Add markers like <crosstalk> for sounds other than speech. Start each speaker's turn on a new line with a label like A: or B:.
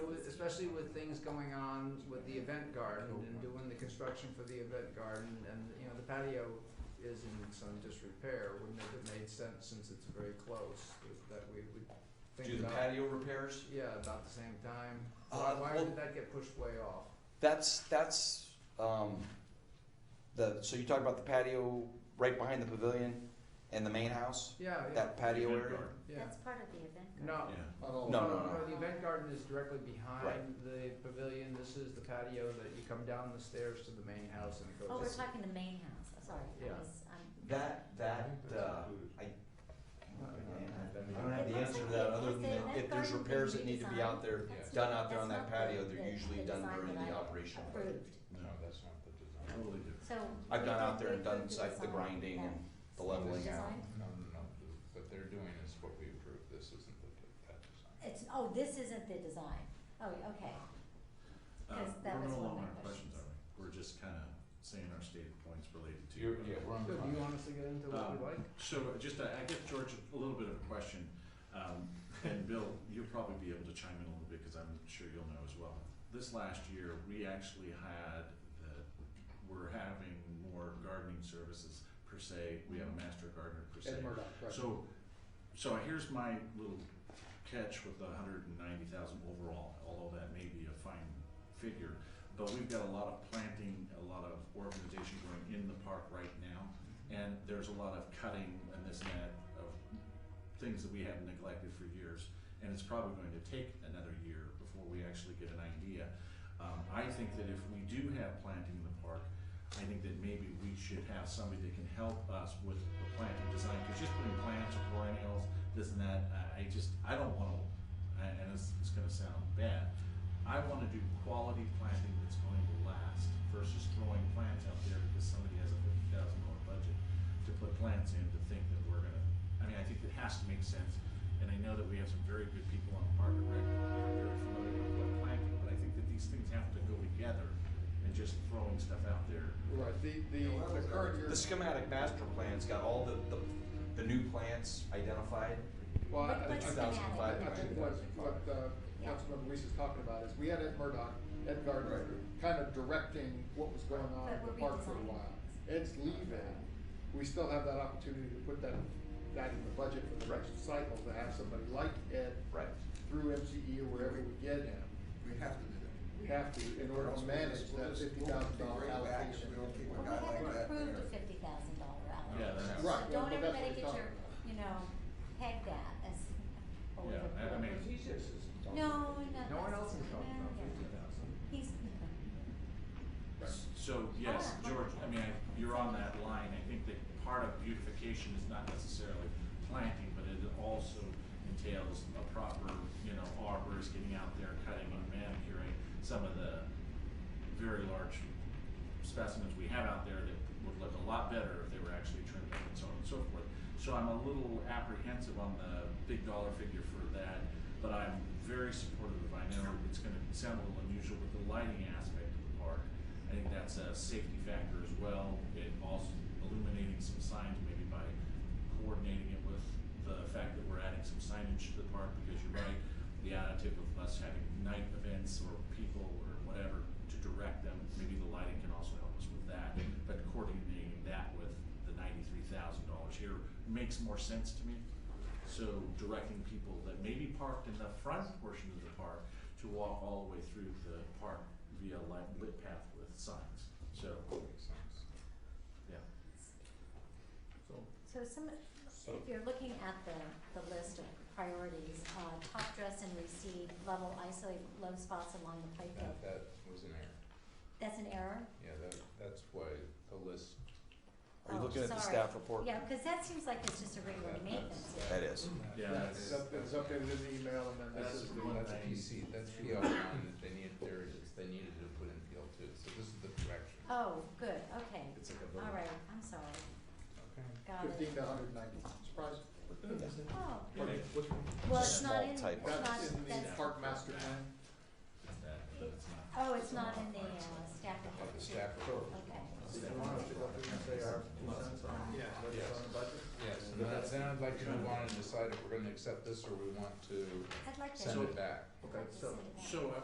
A: especially with things going on with the event garden and doing the construction for the event garden, and, you know, the patio is in some disrepair, wouldn't it have made sense, since it's very close, that we would
B: Do
A: think
B: the
A: about,
B: patio repairs?
A: yeah, about the same time?
B: Uh,
A: Why, why
B: well-
A: did that get pushed way off?
B: That's, that's, um, the, so you talk about the patio right behind the pavilion and the main house,
A: Yeah, yeah,
B: that patio
C: Event
B: area?
C: garden.
A: yeah,
D: That's part of the event.
A: no,
C: Yeah.
B: No, no, no.
A: The event garden is directly behind
B: Right.
A: the pavilion, this is the patio that you come down the stairs to the main house and it
D: Oh, we're
A: goes.
D: talking the main house, I'm sorry,
A: Yeah.
D: I was, um,
B: That, that, uh, I don't have the answer to that, other than that if there's repairs that need to be out there,
D: That's
B: done out there on
D: not-
B: that
D: that's
B: patio,
D: not
B: they're
D: the-
B: usually
D: the
B: done
D: design
B: during
D: that
B: the
D: I
B: operational. phase.
D: approved,
C: No, that's not the design. Totally different.
D: so.
B: I've
D: we
B: gone
D: did-
B: out there
D: we
B: and done
D: approved
B: site, the
D: design
B: grinding
D: that-
B: and the
D: that
B: leveling out.
D: design.
C: No, no, no, what they're doing is what we approved, this isn't the, that design.
D: It's, oh, this isn't the design, oh, okay,
E: Uh,
D: 'Cause that
E: we're
D: was
E: no
D: one of
E: longer
D: my
E: on
D: questions.
E: questions, are we? We're just kinda saying our stated points related to.
B: You're- yeah, we're on
A: So do you want us to get into
B: Um,
A: what we like?
E: So just, uh, I guess, George, a little bit of a question, um, and Bill, you'll probably be able to chime in a little bit, cause I'm sure you'll know as well. This last year, we actually had the, we're having more gardening services per se, we have a master gardener per se. So, so here's my little catch with the hundred and ninety thousand overall, although that may be a fine figure. But we've got a lot of planting, a lot of organization going in the park right now, and there's a lot of cutting and this and that of things that we have neglected for years. And it's probably going to take another year before we actually get an idea. Um, I think that if we do have planting in the park, I think that maybe we should have somebody that can help us with the planting design, because just putting plants or perennials, this and that, I, I just, I don't wanna, and and it's, it's gonna sound bad. I wanna do quality planting that's going to last versus throwing plants out there because somebody has a fifty thousand dollar budget to put plants in to think that we're gonna, I mean, I think it has to make sense. And I know that we have some very good people on Park and Rec, that are very familiar with what planting, but I think that these things have to go together and just throwing stuff out there
F: Right, the, the, uh, the current year.
B: The schematic master plan's got all the, the, the new plants identified.
F: Well, I, I-
D: But-
F: I-
D: but
B: 2005
F: I think what, what, uh, Councilmember Weiss is talking about is, we had Ed Murdoch, Ed Gardner, kind of directing what was going on
D: But
F: in the
D: we're
F: park for a
D: redesigning
F: while.
D: it.
F: Ed's leaving, we still have that opportunity to put that, that in the budget for the next cycle, to have somebody like Ed
B: Right.
F: through MCE or wherever we get him,
G: We have to do that.
F: we have to, in order to manage that fifty thousand dollar allocation.
G: We don't keep
D: Well,
G: a
D: we
G: guy like
D: haven't
G: that
D: approved a
G: there.
D: fifty thousand dollar allocation,
E: Yeah,
D: so
E: that's-
F: Right, yeah, but
D: don't
F: that's
D: everybody
F: what we're
D: get your, you know, peg that as, oh, we've
E: Yeah, I- I
D: approved.
E: mean-
D: No, no.
A: No one else is
D: that's-
A: talking about
D: yeah.
A: fifty thousand.
D: He's,
E: So, yes,
D: Ah.
E: George, I mean, I- you're on that line, I think that part of beautification is not necessarily planting, but it also entails a proper, you know, arborist getting out there, cutting and manicuring some of the very large specimens we have out there that would look a lot better if they were actually trimmed up and so on and so forth. So I'm a little apprehensive on the big dollar figure for that, but I'm very supportive of, I know it's gonna sound a little unusual, but the lighting aspect of the park, I think that's a safety factor as well. It also illuminating some signs maybe by coordinating it with the fact that we're adding some signage to the park, because you're right, the additive of us having night events or people or whatever to direct them, maybe the lighting can also help us with that, but coordinating that with the ninety-three thousand dollars here makes more sense to me. So directing people that may be parked in the front portion of the park to walk all the way through the park via light lit path with signs, so,
C: Makes sense.
E: yeah.
D: <laughs> so some, if you're looking at the, the list of priorities, uh, top dress and receive, level isolate low spots along the playfield,
C: That, that was an error.
D: that's an error?
C: Yeah, that, that's why the list,
B: Are you
D: Oh,
B: looking at the
D: sorry.
B: staff report?
D: Yeah, cause that seems like it's just a regular
C: that,
D: maintenance.
C: that's,
B: That is.
E: Yeah,
F: That's up- It's updated in the email and then this
E: That's
F: is.
E: the one
C: That's
E: thing.
C: PC, that's PL one that they need, there it is, they needed to put in PL two, so this is the correction.
D: Oh, good, okay,
E: It's like a vote.
D: all right, I'm sorry,
C: Okay.
D: got it.
F: Fifteen to hundred and ninety, surprise.
D: Oh,
E: Okay.
D: well, it's
B: Just
D: not
B: small
D: in, it's not,
B: typo.
F: That's in the
D: that's,
F: park master plan.
E: It's that, but it's not.
D: oh, it's not in the, uh, staff
C: Yeah,
D: report.
C: the staff report.
D: okay.
A: Did you want us to go through and say our two cents on
D: Yeah.
A: what's
C: Yes.
A: on the budget?
C: Yes, and then- then I'd like to move on and decide if we're gonna accept this or we want to
D: I'd like to.
C: send it back.
D: I'd
A: Okay,
D: like to
A: so-
D: send it back.
E: So, uh,